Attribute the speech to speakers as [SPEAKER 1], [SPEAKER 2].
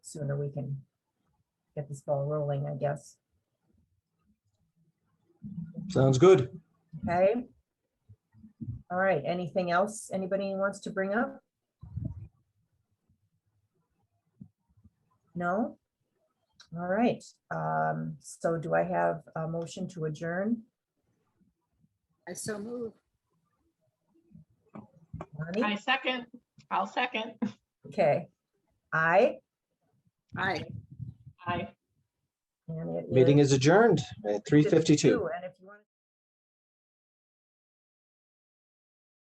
[SPEAKER 1] sooner we can get this ball rolling, I guess.
[SPEAKER 2] Sounds good.
[SPEAKER 1] Okay? All right, anything else anybody wants to bring up? No? All right, um, so do I have a motion to adjourn?
[SPEAKER 3] I so move.
[SPEAKER 1] Lonnie?
[SPEAKER 4] I second, I'll second.
[SPEAKER 1] Okay. I,
[SPEAKER 3] Aye.
[SPEAKER 4] Aye.
[SPEAKER 1] and it
[SPEAKER 2] Meeting is adjourned at 3:52.
[SPEAKER 1] 52, And if you want to.